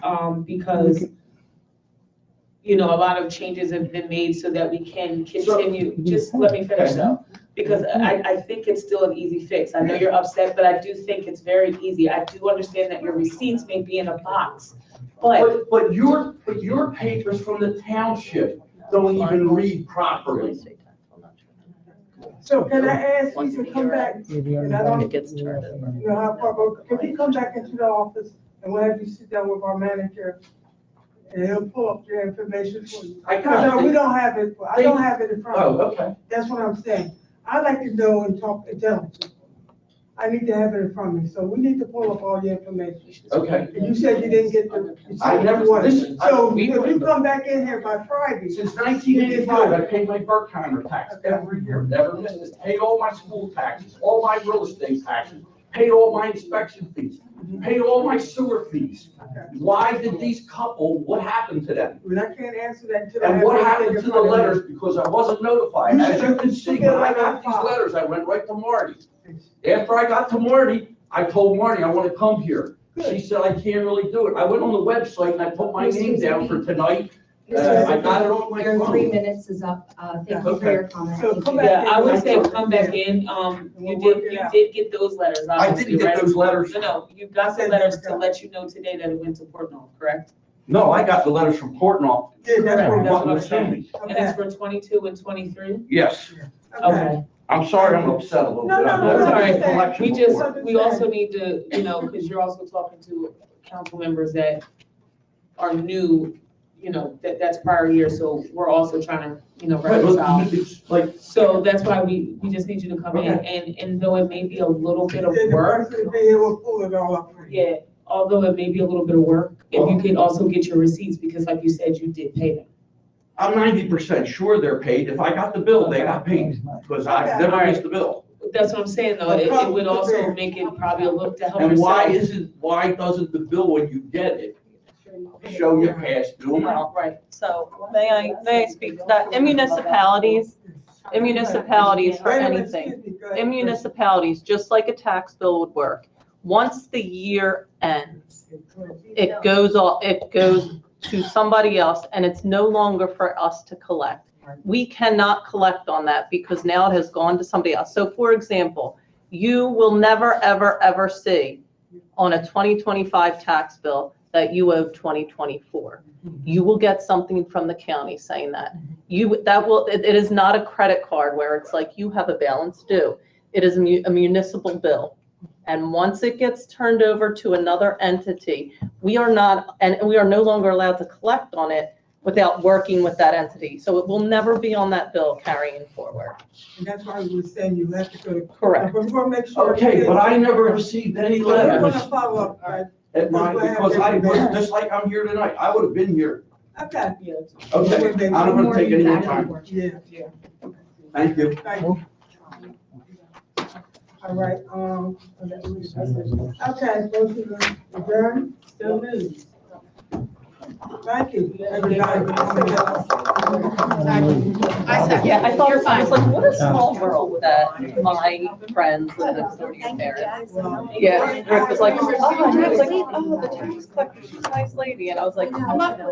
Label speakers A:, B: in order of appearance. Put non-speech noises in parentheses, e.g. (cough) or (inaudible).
A: um, because, you know, a lot of changes have been made so that we can continue, just let me finish though. Because I, I think it's still an easy fix. I know you're upset, but I do think it's very easy. I do understand that your receipts may be in a box, but
B: But, but your, but your papers from the township don't even read properly.
C: So can I ask you to come back, and I don't,
D: It gets turned over.
C: you know, how far, but can we come back into the office and we'll have you sit down with our manager? And he'll pull up your information for you.
B: I
C: No,
B: got
C: we
B: it.
C: don't have it, I don't have it in front of
B: Oh,
C: me,
B: okay.
C: that's what I'm saying. I'd like to know and talk to them. I need to have it in front of me, so we need to pull up all your information.
B: Okay.
C: And you said you didn't get the. you said
B: I never-
C: you wanted it.
B: listen, I-
C: So
B: we-
C: if you come back in here by Friday,
B: Since nineteen eighty-five, I paid my Berkheimer tax every year, never missed it. Paid all my school taxes, all my real estate taxes, paid all my inspection fees, paid all my sewer fees. Why did these couple, what happened to them?
C: Well, I can't answer that until I have.
B: And what
C: everything
B: happened
C: in
B: to the
C: front of me.
B: letters? Because I wasn't notified.
C: You
B: As you
C: should-
B: can see, when I got these letters, I went right to Marty. After I got to Marty, I told Marty, I want to come here. She said, I can't really do it. I went on the website and I put my name down for tonight. Uh, I got it on my
E: Your three
B: phone.
E: minutes is up. Uh, Thank you for your comment.
C: So
E: Thank
C: come
E: you.
C: back
A: yeah, I would say
C: in.
A: come back in. Um, you
C: We'll
A: did,
C: work it
A: you
C: out.
A: did get those letters,
B: I
A: obviously,
B: didn't get
A: right?
B: those letters.
A: No, no, you got the letters to let you know today that it went to Portnoy, correct?
B: No, I got the letters from Portnoy.
C: Yeah, that's
B: From
C: what-
A: That's what I'm
B: Butler
A: saying.
B: County.
A: And it's for twenty-two and twenty-three?
B: Yes,
C: Okay.
B: I'm sorry, I'm upset a little bit.
C: No, no,
B: I'm
A: no,
B: not
A: it's all
B: a
A: right.
B: collection
A: We just, (laughs)
B: report.
A: we also need to, you know, because you're also talking to council members that are new, you know, that, that's prior year, so we're also trying to, you know,
B: Right,
A: reconcile.
B: look, it's Like,
A: So that's why we, we just need you to come in, and, and though it may be a little bit of
C: Then the
A: work,
C: person being here will pull it all up for you.
A: yeah, although it may be a little bit of work, if you could also get your receipts, because like you said, you did pay them.
B: I'm ninety percent sure they're paid. If I got the bill, they got paid, because I
C: Okay.
B: never missed the bill.
A: That's what I'm saying, though, it, it would also make it probably a little to help yourself.
B: And why isn't, why doesn't the bill, when you get it, show your past due amount?
F: Right, so may I, may I speak to that? In municipalities, in municipalities for
C: Wait a minute,
F: anything,
C: excuse me, go ahead.
F: in municipalities, just like a tax bill would work, once the year ends, it goes all, it goes to somebody else and it's no longer for us to collect. We cannot collect on that because now it has gone to somebody else. So for example, you will never, ever, ever see on a 2025 tax bill that you owe 2024. You will get something from the county saying that. You, that will, it it is not a credit card where it's like you have a balance due. It is a mu- a municipal bill. And once it gets turned over to another entity, we are not, and we are no longer allowed to collect on it without working with that entity. So it will never be on that bill carrying forward.
C: And that's why we were saying you have to go. to-
F: Correct.
C: But we want to make sure.
B: Okay, but I never received any
C: We want to
B: letters
C: follow up, right?
B: at my, because I was, just like I'm here tonight, I would have been here.
C: Okay,
A: Yeah,
B: Okay, I don't want to take any more time.
C: yeah, yeah.
B: Thank you.
C: Thank you. All right, um, okay, go to the adjourn.
A: still new.
C: Thank you, everybody.
E: I second.
F: Yeah, I thought,
E: You're
F: I
E: fine.
F: was like, what a small world that my friends live next door to your parents. oh, Yeah, Rick was like, oh, and I was like, oh, the tax collector, she's a nice lady. And I was like, I'm not